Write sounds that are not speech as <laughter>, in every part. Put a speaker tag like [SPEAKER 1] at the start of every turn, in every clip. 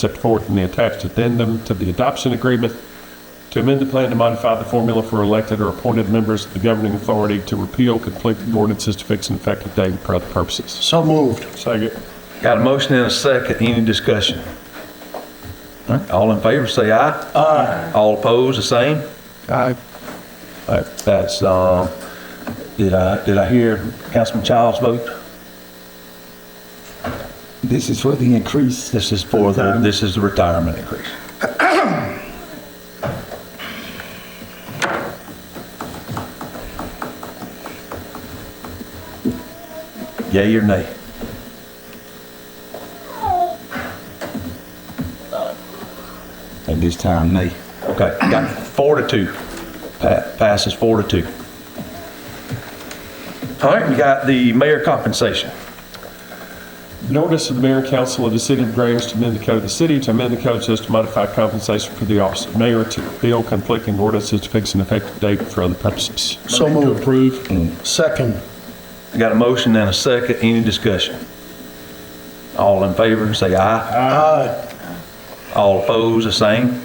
[SPEAKER 1] set forth in the attached addendum to the adoption agreement to amend the plan to modify the formula for elected or appointed members of the governing authority to repeal conflicting ordinances to fix an effective date for other purposes.
[SPEAKER 2] So moved.
[SPEAKER 1] Second.
[SPEAKER 3] Got a motion and a second, any discussion? All right, All in favor, say aye. Aye. All opposed, the same?
[SPEAKER 2] Aye.
[SPEAKER 3] All right, that's, um, did I, did I hear Councilman Childs vote?
[SPEAKER 2] This is for the increase.
[SPEAKER 3] This is for the, this is the retirement increase.
[SPEAKER 2] <clears throat>
[SPEAKER 3] Yay or nay?
[SPEAKER 2] At this time, nay.
[SPEAKER 3] Okay, got four to two. Pa- Passes four to two. All right, we got the mayor compensation.
[SPEAKER 1] An ordinance of the mayor and council of the city of Grange to amend the code of the city to amend the code just to modify compensation for the office of mayor to repeal conflicting ordinances to fix an effective date for other purposes.
[SPEAKER 2] So moved. Approved. Second.
[SPEAKER 3] I Got a motion and a second, any discussion? All in favor, say aye.
[SPEAKER 2] Aye.
[SPEAKER 3] All opposed, the same?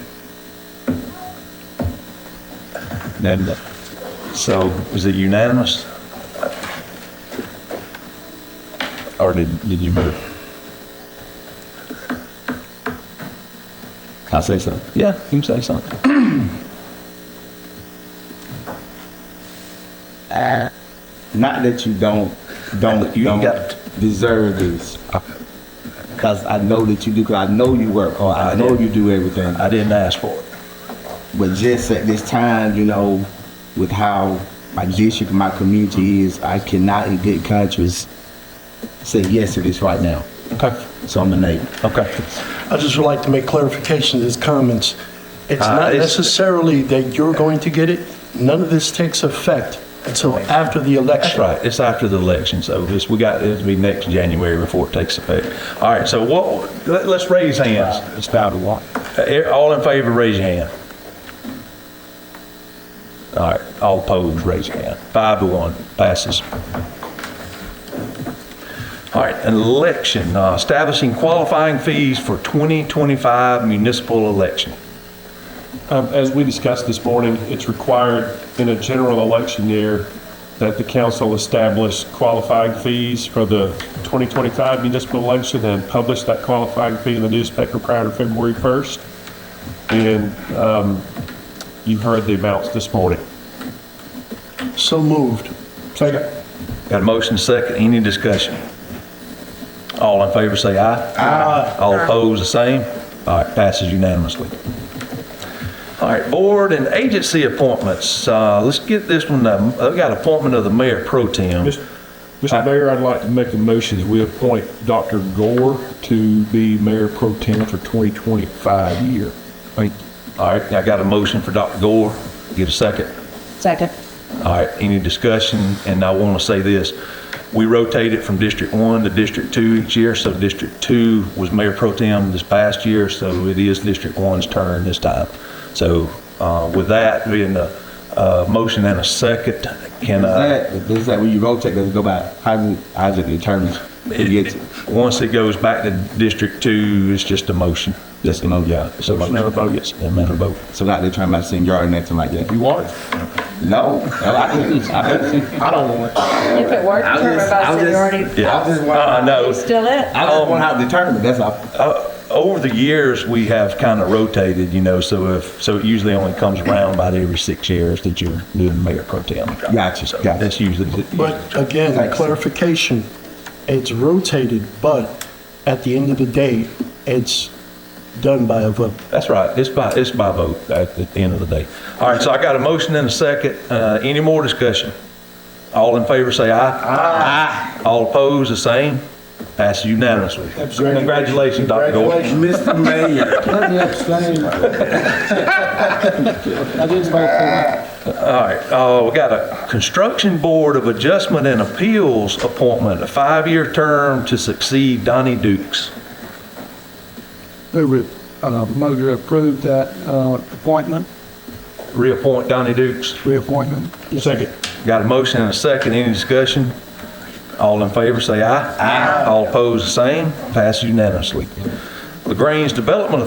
[SPEAKER 3] And uh, so, is it unanimous? Or did, did you move?
[SPEAKER 4] I say so.
[SPEAKER 3] Yeah, you can say something.
[SPEAKER 4] Not that you don't don't
[SPEAKER 3] You
[SPEAKER 4] don't
[SPEAKER 3] got-
[SPEAKER 4] deserve this, because I know that you do. Cause I know you work hard. I,
[SPEAKER 3] I
[SPEAKER 4] know
[SPEAKER 3] did.
[SPEAKER 4] you do everything.
[SPEAKER 3] I didn't ask for it.
[SPEAKER 4] But just at this time, you know, with how my district, my community is, I cannot in good conscience say yes to this right now.
[SPEAKER 3] Okay.
[SPEAKER 4] So I'm a neighbor.
[SPEAKER 3] Okay.
[SPEAKER 5] I just would like to make clarification to his comments. It's
[SPEAKER 3] Uh,
[SPEAKER 5] not
[SPEAKER 3] it's-
[SPEAKER 5] necessarily that you're going to get it. None of this takes effect until after the
[SPEAKER 3] That's
[SPEAKER 5] election.
[SPEAKER 3] right, it's after the election, so this, we got, it'll be next January before it takes effect. All right, so what, let- let's raise hands. It's about to what? All in favor, raise your hand. All right, all opposed, raise your hand. Five to one, passes. All right, an election, uh, establishing qualifying fees for 2025 municipal election.
[SPEAKER 1] Um, As we discussed this morning, it's required in a general election year that the council establish qualifying fees for the 2025 municipal election and publish that qualifying fee in the newspaper prior to February 1st. And um, you heard the amounts this morning.
[SPEAKER 5] So moved.
[SPEAKER 1] Second.
[SPEAKER 3] Got a motion second, any discussion? All in favor say aye. Aye. All opposed, the same? All right, passes unanimously. All right, board and agency appointments, uh, let's get this one, um, I've got appointment of the mayor pro tem.
[SPEAKER 1] Mr. Mr. Mayor, I'd like to make a motion that we appoint Dr. Gore to be mayor pro tem for 2025 year.
[SPEAKER 3] All right, I got a motion for Dr. Gore, get a second.
[SPEAKER 6] Second.
[SPEAKER 3] All right, any discussion? And I want to say this, we rotate it from District 1 to District 2 each year, so District 2 was Mayor Pro Tem this past year, so it is District 1's turn this time. So uh, with that being a uh, motion and a second, can
[SPEAKER 4] Is
[SPEAKER 3] I?
[SPEAKER 4] that is that when you rotate? Does it go by? How's it? How's it determined? Who gets
[SPEAKER 3] it-
[SPEAKER 4] it?
[SPEAKER 3] Once it goes back to District 2, it's just a motion.
[SPEAKER 4] Just a motion.
[SPEAKER 3] Yeah, it's a motion.
[SPEAKER 1] Not a vote.
[SPEAKER 3] Yes, a matter of vote.
[SPEAKER 4] So not determined by seniority or nothing like that.
[SPEAKER 1] You want it?
[SPEAKER 4] No, no, I, I, I don't want. it.
[SPEAKER 6] If it were
[SPEAKER 4] I
[SPEAKER 6] determined
[SPEAKER 4] just-
[SPEAKER 6] by
[SPEAKER 4] I just-
[SPEAKER 6] seniority,
[SPEAKER 3] Yeah.
[SPEAKER 4] I just want.
[SPEAKER 3] Uh, no,
[SPEAKER 6] it's still it.
[SPEAKER 4] I don't want how determined. That's all.
[SPEAKER 3] Uh, Over the years, we have kind of rotated, you know, so if, so it usually only comes around about every six years that you're doing mayor pro tem.
[SPEAKER 4] Gotcha,
[SPEAKER 3] So
[SPEAKER 4] gotcha.
[SPEAKER 3] That's usually. the-
[SPEAKER 5] But again,
[SPEAKER 4] Thanks.
[SPEAKER 5] clarification, it's rotated, but at the end of the day, it's done by a vote.
[SPEAKER 3] That's right, it's by, it's by vote at the end of the day. All right, so I got a motion and a second, uh, any more discussion? All in favor, say aye. Aye. All opposed, the same, passes unanimously. Congratulations, Dr. Gordon.
[SPEAKER 2] Mr. Mayor. Let me explain. I just
[SPEAKER 3] All right, uh, we got a Construction Board of Adjustment and Appeals appointment, a five-year term to succeed Donnie Dukes.
[SPEAKER 7] Move it, uh, move to approve that, uh, appointment,
[SPEAKER 3] Reappoint Donnie Dukes.
[SPEAKER 7] reappointment.
[SPEAKER 1] Second.
[SPEAKER 3] Got a motion and a second, any discussion? All in favor, say aye. Aye. All opposed, the same, passes unanimously. LaGrange Development